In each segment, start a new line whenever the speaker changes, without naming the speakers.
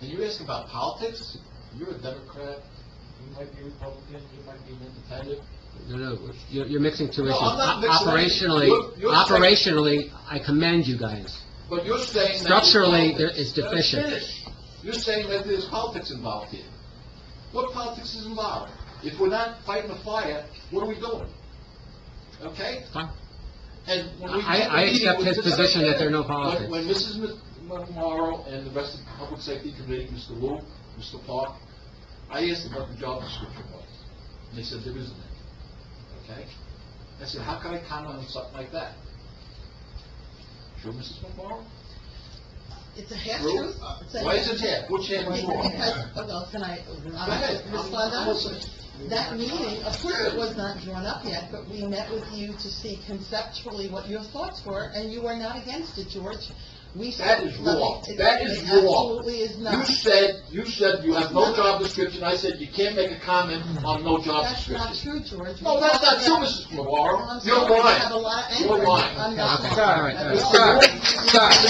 And you ask about politics, you're a Democrat, you might be Republican, you might be an independent.
No, no, you're, you're mixing two
No,
issues.
I'm not mixing anything.
Operationally,
You're- you're
operationally, I commend you guys.
But you're saying that...
Structurally,
there's
there is
politics.
deficient.
Let us finish. You're saying that there's politics involved here. What politics is involved? If we're not fighting a fire, what are we doing? Okay?
Fine.
And when we...
I-
had the
I
meeting
accept
with
his
this-
position that there are no politics.
When when Mrs. Mc- McMorro and the rest of the Public Safety Committee, Mr. Wu, Mr. Park, I asked them what the job description was. And they said there isn't any. Okay? I said, how can I comment on something like that? Sure, Mrs. McMorro?
It's a half
True.
truth. It's a
Why
half-
is it half? Which half is wrong?
Because- oh, well, can I,
Go ahead.
I'm- Ms. Londa, that meeting, of course it was not drawn up yet, but we met with you to see conceptually what your thoughts were, and you were not against it, George. We
That
said
is
nothing-
wrong.
it-
That is
it
wrong.
Absolutely is
You
not.
said, you said you have no job description. I said you can't make a comment on no job
That's not
description.
true, George.
No,
We
that's not
talked
true,
about-
Mrs.
Well, Oh, I'm
McMorro. You're
sorry, I have a
lying.
lot of
You're
anger.
lying.
I'm
Okay,
not.
all right, all
Mr.
right.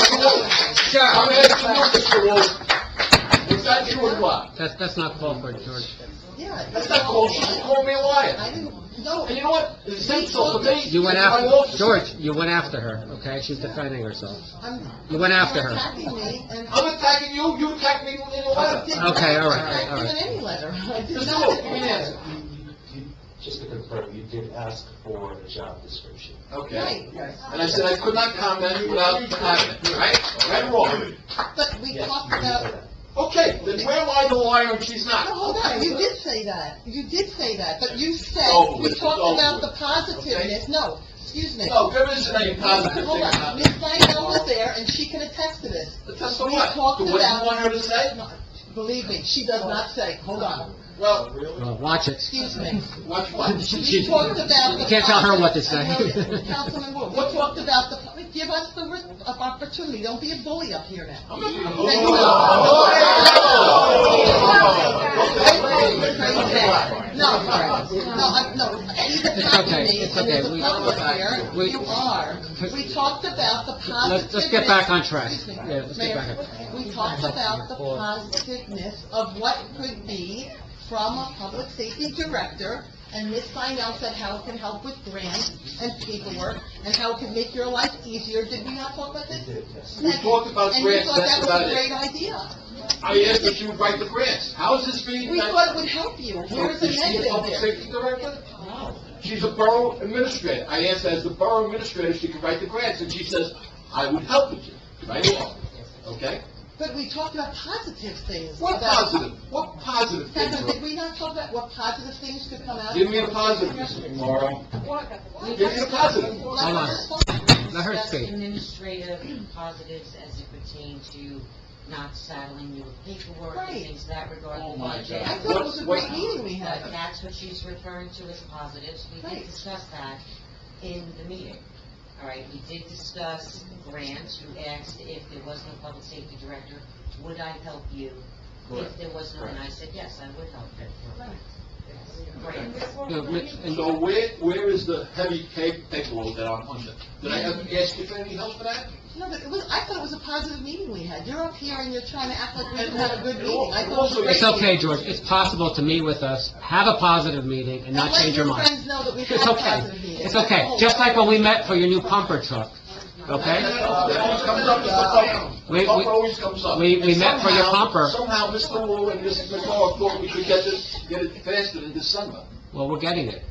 Sir, sir,
I'm
sir,
asking you, Mr. Wu, is that true or what?
that's, that's not called for, George.
Yeah.
That's not called, you just called me a
I
liar.
didn't, no.
And you know what? It's insult to me.
You went
It's my
after,
office.
George, you went after her, okay? She's defending herself.
I'm-
You went after her.
You're attacking me, and
I'm attacking you, you attacked me in a
I
letter.
did
Okay, all
not
right,
attack
all
you
right.
in any letter. I did
Mr.
not.
Wu, give me an answer.
Just to confirm, you did ask for a job description.
Okay.
Right,
And I said I could not comment without comment, right? Right or wrong?
but we
Yes,
talked
you did
about,
that.
Okay, then where am I the liar and she's
no,
not?
hold on, you did say that, you did say that, but you said,
Over Oh, with,
we
it's
talked
over
about
with.
the positiveness, no, excuse me.
No, there isn't any positive
Hold
thing
on,
about
Ms.
it.
Diane was there, and she can attest to this.
That's the
We
what?
talked
The what you
about-
want her to say?
No, Believe me, she does not say, hold on,
Well,
Well, watch it.
excuse me.
watch what?
We talked about the...
You can't tell her what to say.
Another- Councilman Wu, we talked about the, give us the ri- of opportunity, don't be a bully up here now.
I'm not gonna-
Thank you. No, sorry. no, I'm- no, he's attacking me,
It's okay, it's
and there's
okay.
a
We-
public here,
we-
you are. We talked about the positiveness.
Let's- let's get back on track.
Excuse me,
Yeah, let's get back
Mayor,
on-
We talked about the positiveness of what could be from a public safety director, and Ms. Seinell said how it can help with grants and paperwork, and how it can make your life easier, did we not talk about this?
You did, yes.
We talked about grants, that's about
And you
it.
thought that was a great idea.
I asked if you would write the grants. How is this being
We
done?
thought it would help you. Here's the
Is she a
negative
public
there.
safety director?
No.
She's a borough administrator. I asked as the borough administrator, she could write the grants, and she says, I would help with you, right along, okay?
But we talked about positive things.
What
about-
positive, what positive thing,
Kevin, did
George?
we not talk about what positive things could come out?
Give me a positive, Mr. Morrow.
We-
Give me a positive.
Let
Hold on.
her respond.
Let her
discuss
speak.
administrative positives as it pertains to not saddling you with paperwork
Right.
and things of that regard.
Oh, my God.
I thought it was a great
What-
meeting we
But
had.
that's what she's referring to as positives. We
Right.
did discuss that in the meeting. All right, we did discuss grants. You asked if there was no public safety director, would I help you? If
Correct.
there was no, and I said, yes, I would help you. Yes. Grants.
No, Mitch, and-
So where, where is the heavy ca- paperwork that I'm under? Did I ever ask you for any help for that?
No, but it was, I thought it was a positive meeting we had. You're up here and you're trying to act like we didn't have a good
It
meeting. I
al-
thought it was a
it
great
It's okay,
meeting.
George, it's possible to meet with us, have a positive meeting, and not change your
And
mind.
let your friends know that we
It's
had
okay,
positive meetings.
it's okay, just like when we met for your new pumper truck, okay?
That always comes up, Mr. Pumper.
We- we-
Pumper always comes up.
we- we
And
met for your
somehow-
pumper.
Somehow, Mr. Wu and Mrs. McCall thought we could get this, get it faster in December.
Well, we're getting it,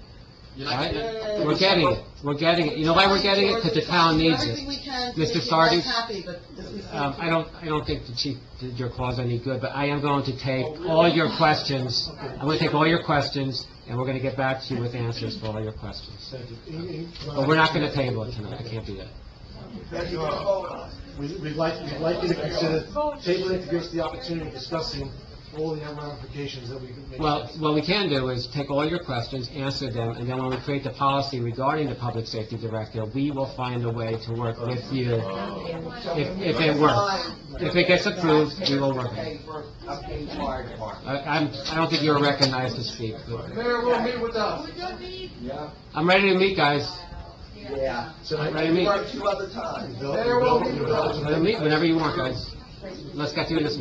You're not
right?
getting it?
We're getting it, we're getting it, you know why we're getting it? Because the town needs it.
Everything we can to
Mr.
make you guys
Sardis?
happy, but this is-
Um, I don't, I don't think the chief did your cause any good, but I am going to take all your questions. I'm going to take all your questions, and we're going to get back to you with answers for all your questions. But we're not going to table it tonight, I can't do that.
Thank you all. We- We'd like, we'd like you to consider tabling it to give us the opportunity of discussing all the ramifications that we could make.
Well, what we can do is take all your questions, answer them, and then when we create the policy regarding the public safety director, we will find a way to work with you if, if it works. If it gets approved, we will work on it. I, I'm, I don't think you're recognized to speak, but
Mayor will meet with us.
I'm ready to meet, guys.
Yeah.
I'm ready to meet.
two other times.
Develop- develop- develop-
We'll meet whenever you want, guys. Let's get through this